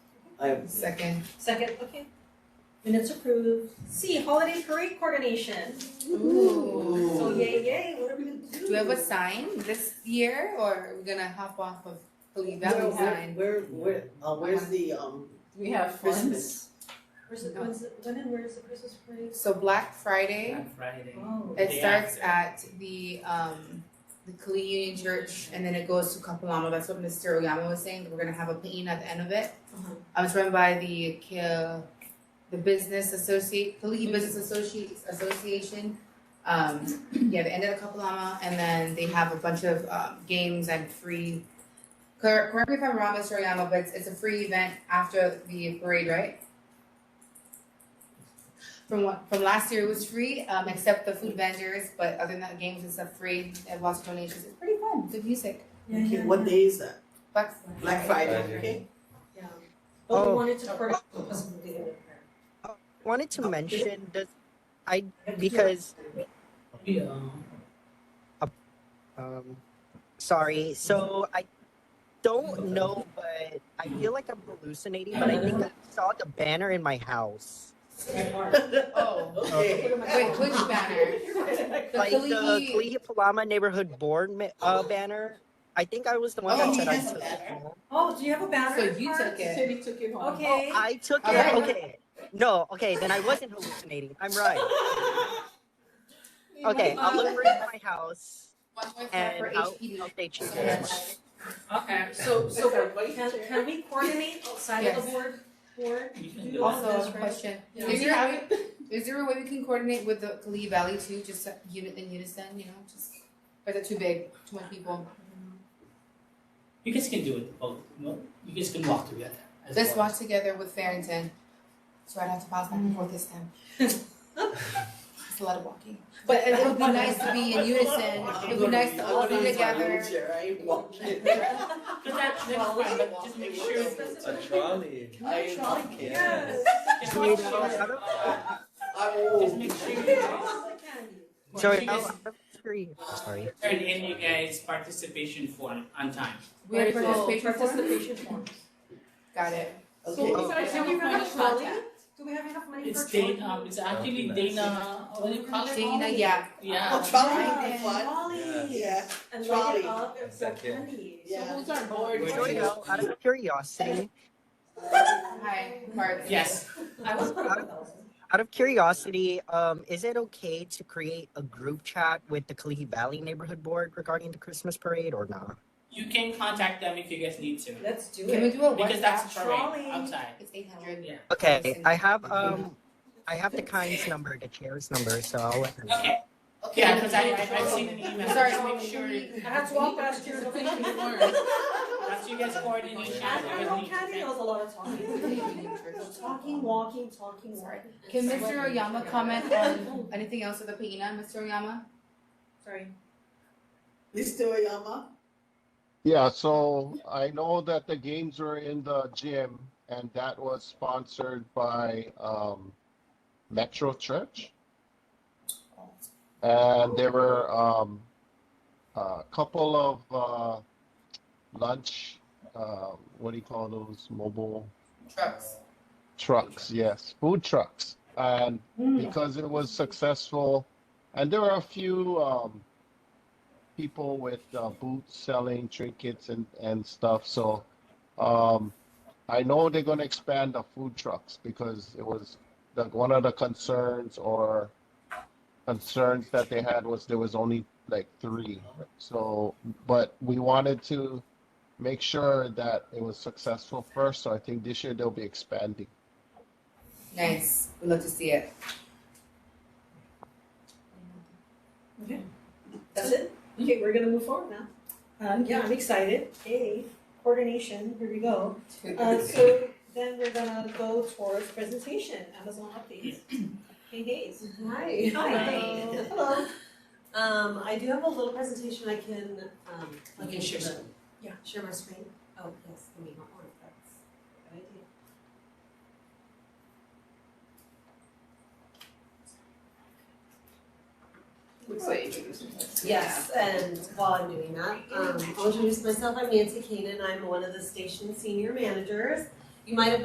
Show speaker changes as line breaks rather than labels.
I,
Second.
Second, okay. Minutes approved. C, holiday parade coordination.
Ooh.
So yay, yay, what are we gonna do?
Do we have a sign this year or are we gonna hop off of Holy Valley
where,
sign?
where, where, uh, where's the, um,
We have funds.
Christmas?
Where's the, when's, the- when and where's the Christmas parade?
So Black Friday,
On Friday.
Oh.
it
Day
starts
after.
at the um the Kali Union Church and then it goes to Kapalama. That's what Mr. Oyama was saying, that we're gonna have a pain at the end of it.
Uh-huh.
I was run by the Kil the business associate Kali Business Associate Association. Um yeah, the end of the Kapalama and then they have a bunch of um games and free cor- correct me if I'm wrong, Mr. Oyama, but it's, it's a free event after the parade, right? From what from last year it was free, um except the food vendors, but other than that games and stuff free, they have lots of donations. It's pretty fun, good music.
Yeah,
Okay,
yeah,
what
yeah.
day is that?
Black
Black Friday,
Friday.
okay?
Yeah. But we
Oh.
wanted to coordinate because of the day of the parade.
wanted to mention does because
Yeah.
um sorry so i don't know but i feel like i'm hallucinating but i think i saw the banner in my house
Oh.
Okay.
Wait, which banner? The
like
Kali
the Kalihi Palama neighborhood board ma- uh, banner i think i was the one
Oh,
that said i
yes,
took
banner.
it home.
Oh, do you have a
So
banner?
you took it. Oh,
City took it home.
Okay.
i took
Okay.
it okay no okay then i wasn't hallucinating i'm right okay i'll look for it in my house
One more time
and
for
i'll,
HP.
I'll update you
Okay.
Okay, so, so for vice
Can, can
chair.
we coordinate outside of
Yes.
the board, board?
you can do
we do
it.
all
Also,
those,
a
right?
question.
Yeah.
Is there, a- is there a way we can coordinate with the Lee Valley too, just a unit in unison, you know, just, or is it too big, too many people?
You guys can do it both, no? You guys can walk together as
Let's
well.
watch together with Farrington, so I'd have to pass back and forth this time. It's a lot of walking, but it would be nice to be in unison, it
Uh,
would be nice to all be together.
I walked in.
But that, that's
Well, we
fine,
can
but
walk.
just make
It
sure.
works.
A trolley.
I walked in.
Yes.
just
Wait,
make sure,
I don't-
uh,
I'm
Just
old.
make sure you
Get
guys,
all the candy.
sorry
you guys
I'll- I'll screen. sorry
turn in you guys participation form on time.
We have
Very cool.
participation form?
Participation forms.
Got it.
Okay.
Oh.
guys
Do
have
we
a
have
bunch
enough
of
money?
contact.
Do we have enough money
It's
for
Dana,
trolley?
it's actually
nice.
Dana, what do you call it?
Dana, yeah,
Yeah.
Oh, trolley would be
Yeah.
fun.
Trolley.
Yeah.
And light
Trolley.
it up and sell
Second.
candy.
Yeah.
So who's our board?
Wait,
Joy,
wait.
though, out of curiosity
hi, Mark.
Yes,
I was put up a thousand.
out of curiosity, um, is it okay to create a group chat with the Kalihi Valley Neighborhood Board regarding the Christmas parade or not?
you can contact them if you guys need to,
Let's do
Can we
it.
do a
because that's
WhatsApp?
terrain
trolley.
outside.
It's eight hundred.
Yeah.
Okay, I have um, I have the kind's number, the chair's number, so I'll let her know.
Okay,
Okay.
yeah, because I, I- I've seen an email,
Sorry.
just make sure,
I had to walk past here to finish the word.
once you guys coordinate, you
I,
guys
I know
need to
candy knows a lot of talking. Talking, walking, talking, walking.
Can Mr. Oyama comment on anything else with the Paina, Mr. Oyama?
Sorry.
Mr. Oyama?
Yeah, so I know that the games were in the gym, and that was sponsored by um, Metro Church. And there were um, a couple of uh, lunch, uh, what do you call those? Mobile
Trucks.
trucks, yes, food trucks. And because it was successful. And there were a few um, people with uh, boots selling trinkets and, and stuff. So um, I know they're going to expand the food trucks because it was the, one of the concerns or concerns that they had was there was only like three. So, but we wanted to make sure that it was successful first. So I think this year they'll be expanding.
Nice. We'd love to see it.
That's it? Okay, we're gonna move forward now. Um, yeah, I'm excited. Hey, coordination, here we go. Uh, so then we're gonna go towards presentation, Amazon updates. Hey, Hayes.
Hi.
Hi. Hello.
Um, I do have a little presentation I can, um.
You can share
the-
screen.
Yeah, share my screen. Oh, yes, let me hop on, it. that's a good idea.
Looks like introducing us.
Yes, and while I'm doing that, um, I'll introduce myself. I'm Nancy Kanan. I'm one of the station senior managers. You might have